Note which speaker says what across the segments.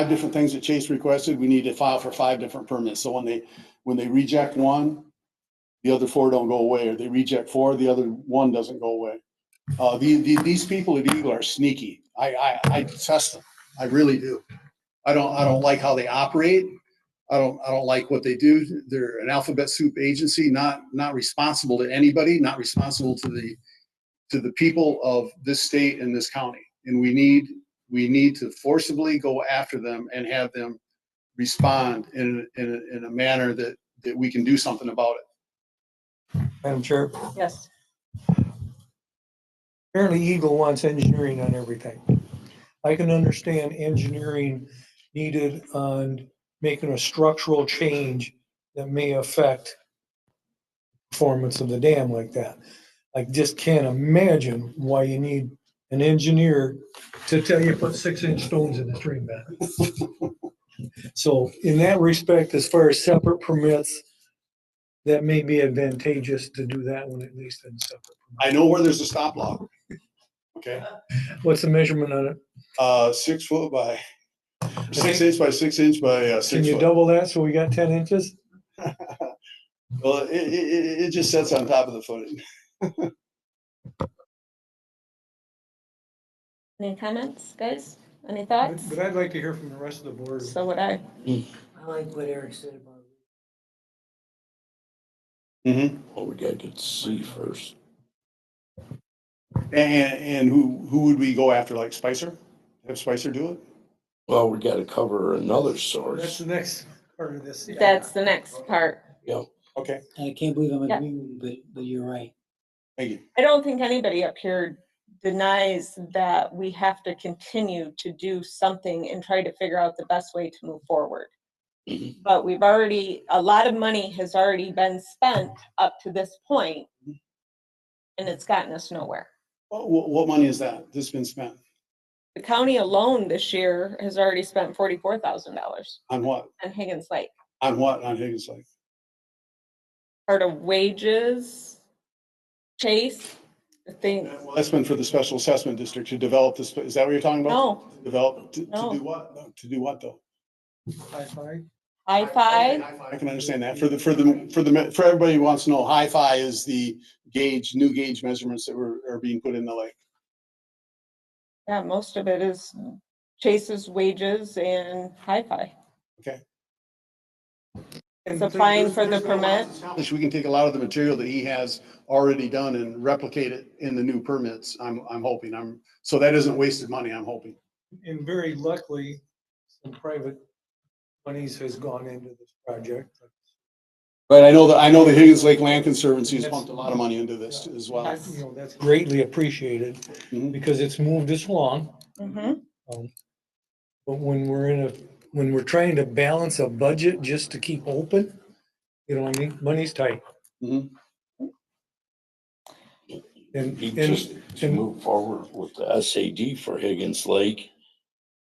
Speaker 1: five different things that Chase requested, we need to file for five different permits. So when they, when they reject one, the other four don't go away, or they reject four, the other one doesn't go away. Uh, the, the, these people at Eagle are sneaky. I, I, I detest them. I really do. I don't, I don't like how they operate. I don't, I don't like what they do. They're an alphabet soup agency, not, not responsible to anybody, not responsible to the, to the people of this state and this county. And we need, we need to forcibly go after them and have them respond in, in, in a manner that, that we can do something about it.
Speaker 2: Madam Chair,
Speaker 3: Yes.
Speaker 2: apparently Eagle wants engineering on everything. I can understand engineering needed on making a structural change that may affect performance of the dam like that. I just can't imagine why you need an engineer to tell you put six inch stones in the stream bed. So in that respect, as far as separate permits, that may be advantageous to do that one at least in separate.
Speaker 1: I know where there's a stop log. Okay,
Speaker 2: What's the measurement on it?
Speaker 1: uh, six foot by, six inch by six inch by uh,
Speaker 2: Can
Speaker 1: six
Speaker 2: you
Speaker 1: foot.
Speaker 2: double that so we got ten inches?
Speaker 1: Well, it, it, it it just sits on top of the footing.
Speaker 3: Any comments, guys? Any thoughts?
Speaker 2: I'd like to hear from the rest of the board.
Speaker 3: So would I.
Speaker 4: I like what Eric said about.
Speaker 1: Mm-hmm.
Speaker 5: Well, we gotta get C first.
Speaker 1: And, and who, who would we go after, like Spicer? Have Spicer do it?
Speaker 5: Well, we gotta cover another source.
Speaker 2: the next part of this.
Speaker 3: That's the next part.
Speaker 1: Okay,
Speaker 4: I can't believe I'm
Speaker 3: Yeah.
Speaker 4: agreeing with you, but, but you're right.
Speaker 1: thank you.
Speaker 3: I don't think anybody up here denies that we have to continue to do something and try to figure out the best way to move forward.
Speaker 5: Mhm.
Speaker 3: But we've already, a lot of money has already been spent up to this point, and it's gotten us nowhere.
Speaker 1: What, what, what money is that that's been spent?
Speaker 3: The county alone this year has already spent forty-four thousand dollars
Speaker 1: On what?
Speaker 3: on Higgins Lake.
Speaker 1: On what? On Higgins Lake?
Speaker 3: part of wages, chase, I think,
Speaker 1: Well, That's been for the special assessment district to develop this, is that what you're talking about?
Speaker 3: no,
Speaker 1: Develop, to, to
Speaker 3: No.
Speaker 1: do what? No, To do what though?
Speaker 3: high five.
Speaker 1: I can understand that. For the, for the, for the, me- for everybody who wants to know, hi-fi is the gauge, new gauge measurements that were, are being put in the lake.
Speaker 3: Yeah, most of it is chase's wages and high fi
Speaker 1: Okay.
Speaker 3: It's applying for the permit.
Speaker 1: Which we can take a lot of the material that he has already done and replicate it in the new permits, I'm, I'm hoping. I'm, so that isn't wasted money, I'm hoping.
Speaker 2: And very luckily, some private monies has gone into this project. Uh,
Speaker 1: But I know that, I know the Higgins Lake Land Conservancy has pumped a lot of money into this as well.
Speaker 3: Yes.
Speaker 2: You know, that's greatly appreciated
Speaker 1: Mhm.
Speaker 2: because it's moved us along.
Speaker 3: Mhm.
Speaker 2: But when we're in a, when we're trying to balance a budget just to keep open, you know, what I mean, money's tight.
Speaker 1: Mhm.
Speaker 2: And,
Speaker 5: You
Speaker 2: and
Speaker 5: just to move forward with the SAD for Higgins Lake.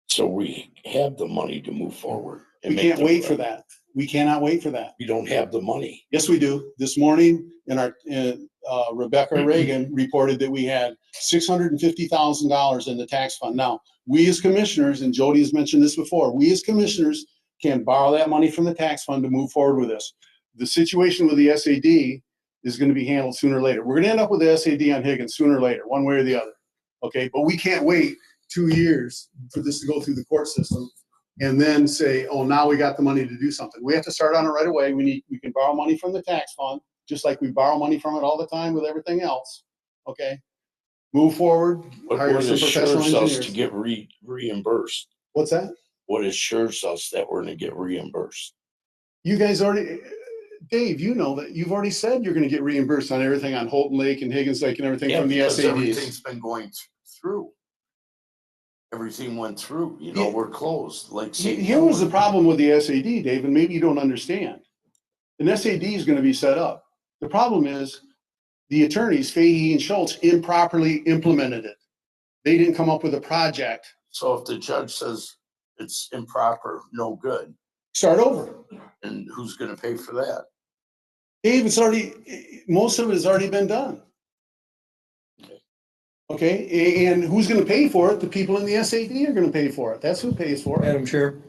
Speaker 5: So we have the money to move forward. and
Speaker 1: We
Speaker 5: make
Speaker 1: can't
Speaker 5: the-
Speaker 1: wait for that. We cannot wait for that.
Speaker 5: We don't have the money.
Speaker 1: Yes, we do. This morning, in our, in, uh, Rebecca Reagan reported that we had six hundred and fifty thousand dollars in the tax fund. Now, we as commissioners, and Jody has mentioned this before, we as commissioners can borrow that money from the tax fund to move forward with this. The situation with the SAD is gonna be handled sooner or later. We're gonna end up with the SAD on Higgins sooner or later, one way or the other. Okay, but we can't wait two years for this to go through the court system and then say, oh, now we got the money to do something. We have to start on it right away. We need, we can borrow money from the tax fund, just like we borrow money from it all the time with everything else. Okay? Move forward.
Speaker 5: But
Speaker 1: Hire
Speaker 5: what
Speaker 1: some professional
Speaker 5: assures us
Speaker 1: engineers.
Speaker 5: to get re- reimbursed?
Speaker 1: What's that?
Speaker 5: What assures us that we're gonna get reimbursed?
Speaker 1: You guys already, Dave, you know that you've already said you're gonna get reimbursed on everything on Holton Lake and Higgins Lake and everything
Speaker 5: Yeah,
Speaker 1: from the
Speaker 5: because
Speaker 1: SADs.
Speaker 5: Everything's been going th- through. Everything went through, you know,
Speaker 1: Yeah.
Speaker 5: we're closed, like.
Speaker 1: He- Here was the
Speaker 5: problem.
Speaker 1: problem with the SAD, Dave, and maybe you don't understand. An SAD is gonna be set up. The problem is the attorneys, Fahey and Schultz, improperly implemented it. They didn't come up with a project.
Speaker 5: So if the judge says it's improper, no good,
Speaker 1: Start over.
Speaker 5: and who's gonna pay for that?
Speaker 1: Dave, it's already, most of it has already been done. Okay, a- and who's gonna pay for it? The people in the SAD are gonna pay for it. That's who pays for it.
Speaker 2: Madam Chair.